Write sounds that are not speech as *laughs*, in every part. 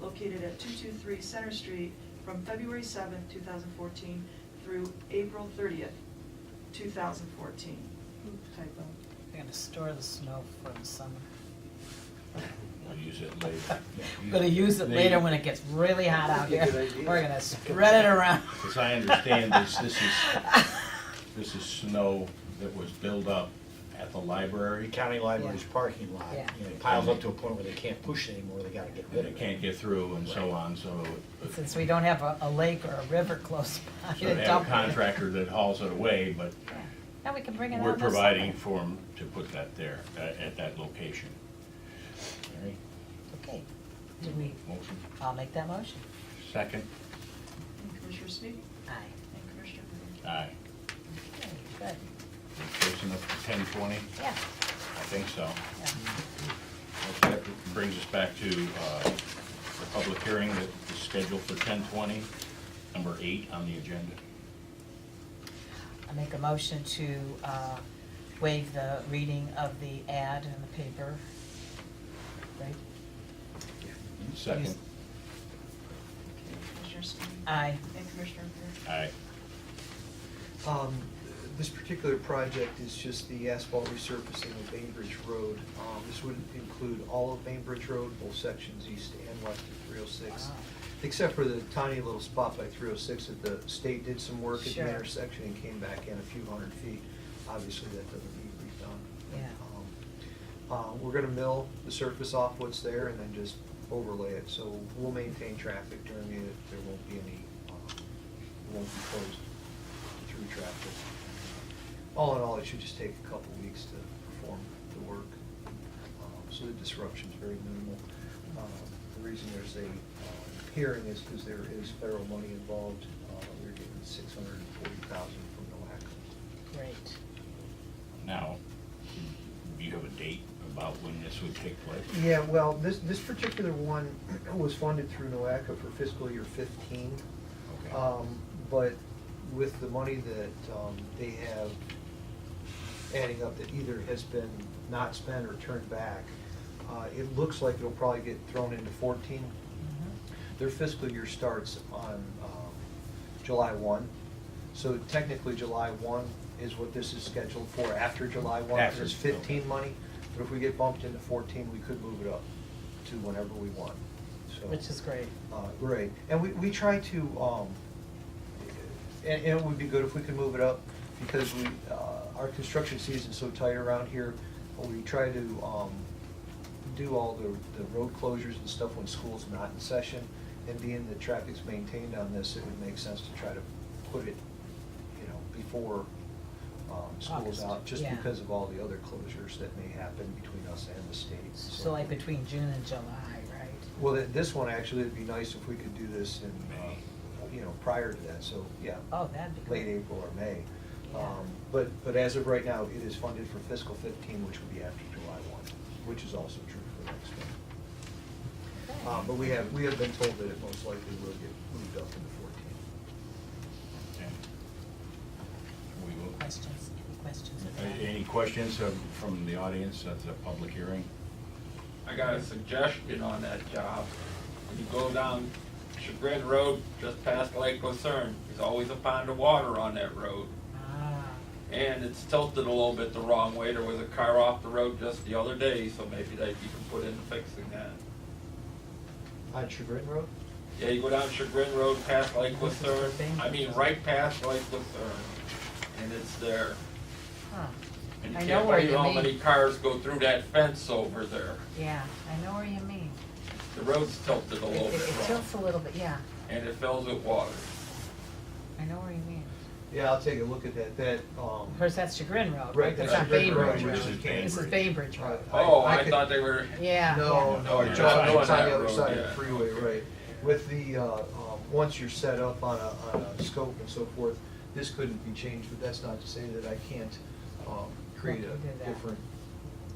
located at 223 Center Street from February 7, 2014 through April 30, 2014. Oop, Typo. They're gonna store the snow for the summer. We'll use *laughs* it later. We're gonna use it later when it gets really hot out here. We're gonna spread it around. *laughs* As I understand this, this is, this is snow that was built up at the The library, county library's Yeah. parking lot, Yeah. you know, it piles up to a point where they can't push it anymore, they gotta get and rid it of it. can't get through and so on, so. *laughs* Since *laughs* we don't have a, a lake or a river close by So to they have dump a it. contractor that hauls it away, but Now we can bring it on. we're this summer. providing for them to put that there, uh, at that location. All right, Okay, do we, motion, I'll make that motion. second, And Commissioner Smee? Aye. And Commissioner Brinkley? aye. Okay, good, Close enough to ten twenty? yeah, I think so. yeah. That brings us back to uh, the public hearing that is scheduled for 10:20, number eight on the agenda. I make a motion to, uh, waive the reading of the ad in the paper. Right? Second, Yes. Commissioner Smee? Aye. And Commissioner Brinkley? aye. Um, This particular project is just the asphalt resurfacing of Bainbridge Road. Um, This would include all of Bainbridge Road, both sections east and west of 306, Wow. except for the tiny little spot by 306 that the state did some work at the Sure. intersection and came back in a few hundred feet. Obviously, that doesn't need redone. Yeah. Um, uh, We're gonna mill the surface off what's there and then just overlay it, so we'll maintain traffic during it, there won't be any, uh, won't be closed through traffic. All in all, it should just take a couple weeks to perform the work, Um, so the disruption's very minimal. Um, The reason there's a um, hearing is because there is federal money involved, Uh, we're getting six hundred and forty thousand from NOAC. Great. Now, do you have a date about when this would take place? Yeah, well, this, this particular one *clears throat* was funded through NOACA for fiscal year fifteen. Okay. Um, But with the money that um, they have adding up that either has been not spent or turned back, uh, it looks like it'll probably get thrown into fourteen. Mhm. Their fiscal year starts on um, July one. So technically, July one is what this is scheduled for, after July one, After, because it's okay. fifteen money. But if we get bumped into fourteen, we could move it up to whenever we want, so. Which is great. Uh, Right, and we, we try to, um, and, and it would be good if we could move it up, because we, uh, our construction season's so tight around here. We try to, um, do all the, the road closures and stuff when school's not in session. And being that traffic's maintained on this, it would make sense to try to put it, you know, before, um, school's August, out, just yeah. because of all the other closures that may happen between us and the state. So like between June and July, right? well, th- this one, actually, it'd be nice if we could do this in, uh, you know, prior to that, so, yeah. Oh, that'd be Late great. April or May. Yeah. Um, But, but as of right now, it is funded for fiscal 15, which will be after July 1, which is also true for next one. Okay. Uh, But we have, we have been told that it most likely will get moved up into Okay. 14. We will- Questions, any questions? A- Any questions um, from the audience at the public hearing? I got a suggestion on that job. When you go down Chagrin Road, just past Lake Lucerne, there's always a pond of water on that road. Ah, And it's tilted a little bit the wrong way. There was a car off the road just the other day, so maybe they can put in fixing that. On Chagrin Road? Yeah, you go down Chagrin Road past Lake This is the Lucerne, thing. I mean, right past Lake Lucerne, and it's there. huh, And you I know can't where believe you how mean. many cars go through that fence over there. yeah, I know where you mean. The road's tilted a It- little It bit it wrong, tilts a little bit, yeah, and it fills with water. I know where you mean. Yeah, I'll take a look at that, that, um. Of course, that's Chagrin Road, Right, right? That's that's not Chagrin Road, Bainbridge which Road. is This is Bainbridge. Bainbridge I- Road. Oh, I could- thought they were. Yeah. No, no, yeah. No, it's you're on not it's doing on that the other road, side of the yeah. freeway, right. With the, uh, um, once you're set up on a, on a scope and so forth, this couldn't be changed, but that's not to say that I can't um, create Look into a that. different,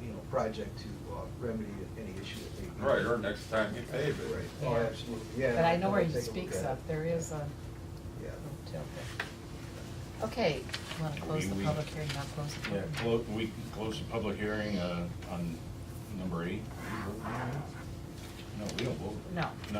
you know, project to uh, remedy any issue that may be. Right, or next time you pave it. Right, oh, Yeah. absolutely, yeah. But I know I'll where he take a look speaks at it. of, there is a Yeah. a tilt there. Okay, you wanna close the We- we- public hearing, not close the Yeah, public? hearing? clo- we can close the public hearing uh, on number eight. No, we don't vote. No. No,